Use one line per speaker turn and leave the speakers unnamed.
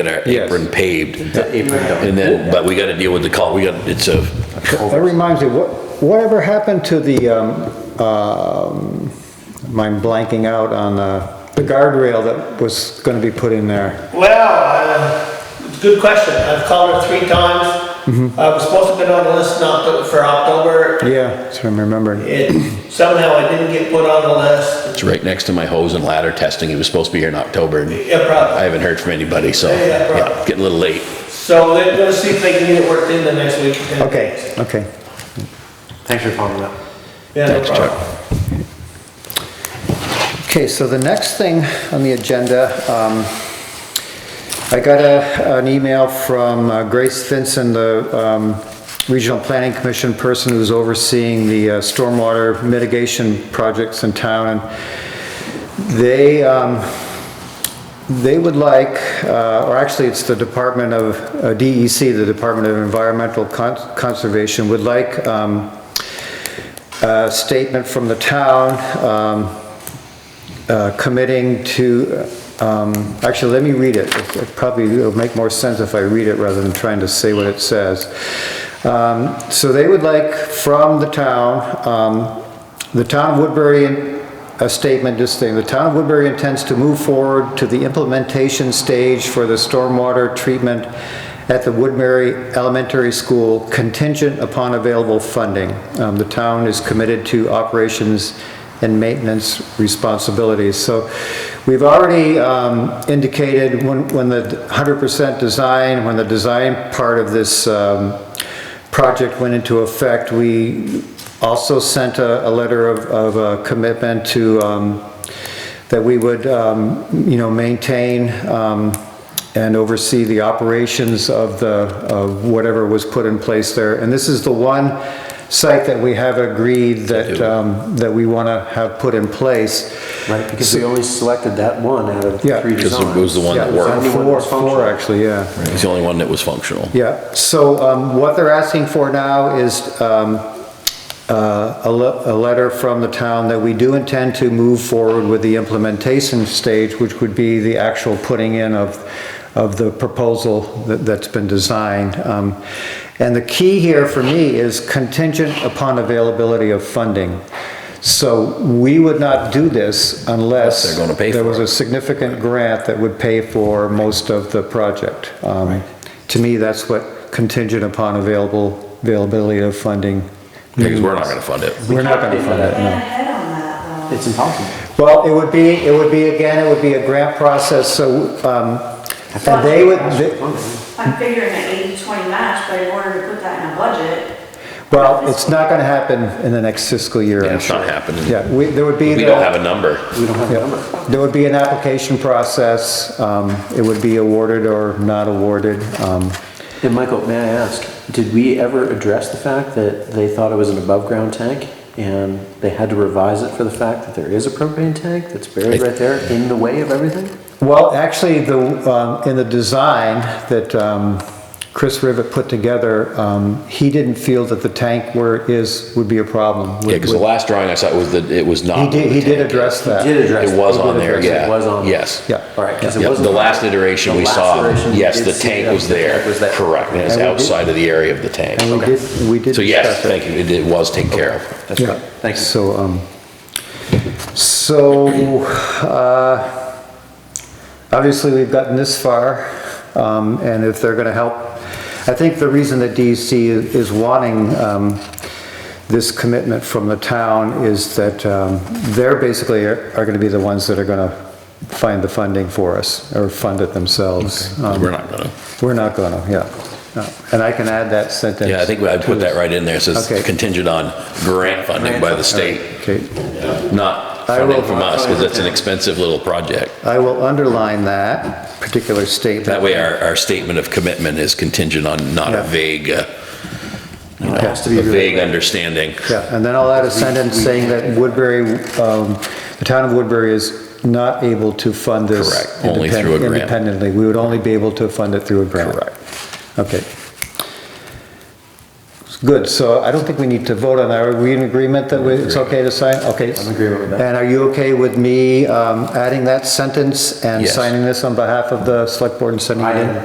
that are
Yes.
apron paved.
apron done.
And then, but we gotta deal with the call, we got, it's a,
That reminds me, what, whatever happened to the, um, um, I'm blanking out on, uh, the guardrail that was gonna be put in there?
Well, uh, it's a good question. I've called her three times. I was supposed to have been on the list in Octo- for October.
Yeah, so I'm remembering.
It, somehow I didn't get put on the list.
it's right next to my hose and ladder testing. He was supposed to be here in October and
Yeah,
I
probably.
haven't heard from anybody, so,
Yeah, yeah, right.
yeah, getting a little late.
So they're gonna see if they can get it worked in the next week.
Okay, okay.
Thanks for following up.
Yeah, no
Thanks, Chuck.
problem.
Okay, so the next thing on the agenda, um, I got a, an email from uh, Grace Vinson, the, um, Regional Planning Commission person who's overseeing the uh, stormwater mitigation projects in town. And They, um, they would like, uh, or actually, it's the Department of, uh, DEC, the Department of Environmental Con- Conservation, would like, um, a statement from the town, um, uh, committing to, um, actually, let me read it. It- it Probably it'll make more sense if I read it rather than trying to say what it says. Um, So they would like from the town, um, the town of Woodbury, a statement, this thing, the town of Woodbury intends to move forward to the implementation stage for the stormwater treatment at the Woodbury Elementary School contingent upon available funding. Um, The town is committed to operations and maintenance responsibilities. So we've already um, indicated when, when the 100% design, when the design part of this um, project went into effect, we also sent a, a letter of, of uh, commitment to, um, that we would, um, you know, maintain um, and oversee the operations of the, of whatever was put in place there. And this is the one site that we have agreed that, um, that we want to have put in place.
Right, because we only selected that one out of
Yeah.
three
Because
designs.
it was the one that
Yeah,
worked.
Only one
Four,
that's functional.
four, actually, yeah.
He's the only one that was functional.
Yeah, so um, what they're asking for now is um, uh, a le- a letter from the town that we do intend to move forward with the implementation stage, which would be the actual putting in of, of the proposal that- that's been designed. Um, And the key here for me is contingent upon availability of funding. So we would not do this unless
They're gonna pay
there
for
was
it.
a significant grant that would pay for most of the project. Um, To me, that's what contingent upon available, availability of funding.
Because we're not gonna fund it.
We're not gonna fund it,
Plan
no.
ahead on that, though.
It's impossible.
Well, it would be, it would be, again, it would be a grant process, so, um, and they would, they-
I'm figuring an 80-20 match, but in order to put that in a budget,
well, it's not gonna happen in the next fiscal year,
Yeah,
I'm
it's
sure.
not happening.
Yeah, uh, we, there would be.
We
the-
don't have a number.
We don't have a
yeah,
number.
There would be an application process, um, it would be awarded or not awarded, um,
And Michael, may I ask, did we ever address the fact that they thought it was an above-ground tank? And they had to revise it for the fact that there is a propane tank that's buried right there in the way of everything?
Well, actually, the, um, in the design that um, Chris Rivet put together, um, he didn't feel that the tank where it is would be a problem.
Yeah, because the last drawing I saw was that it was not.
He did, he did address that.
Did address it?
It was
They did
on there,
address it.
yeah.
It was on. there.
Yes.
Yeah.
All right, because it
Yep,
wasn't.
the last iteration
the
we
last
saw,
iteration we
yes,
did
the
see
tank
that
was
the tank
there,
was there.
correct, and it's
And we did-
outside of the area of the tank.
And we did, we did.
So yes,
discuss it.
thank you, it it was taken care of.
That's right, thank you.
So, um, so, uh, obviously, we've gotten this far, um, and if they're gonna help, I think the reason that DEC is is wanting, um, this commitment from the town is that, um, they're basically are are gonna be the ones that are gonna find the funding for us, or fund it themselves. Um,
We're not gonna.
We're not gonna, yeah. No. And I can add that sentence.
Yeah, I think I put that right in there, it says
Okay.
contingent on grant funding by the state,
Okay.
not
I
funding
will-
from us, because that's an expensive little project.
I will underline that particular statement.
That way, our, our statement of commitment is contingent on not
Yeah.
a vague, uh, you know,
It has
a
to be really
vague understanding.
Yeah, and then I'll add a sentence saying that Woodbury, um, the town of Woodbury is not able to fund this.
Correct, only through a
independ-
grant.
Independently, we would only be able to fund it through a grant. Correct. Okay. Good, so I don't think we need to vote on that. Are we in agreement that we- it's okay to sign? Okay.
I'm in agreement with that.
And are you okay with me um, adding that sentence and
Yes.
signing this on behalf of the select board and sending it
I
in?
am.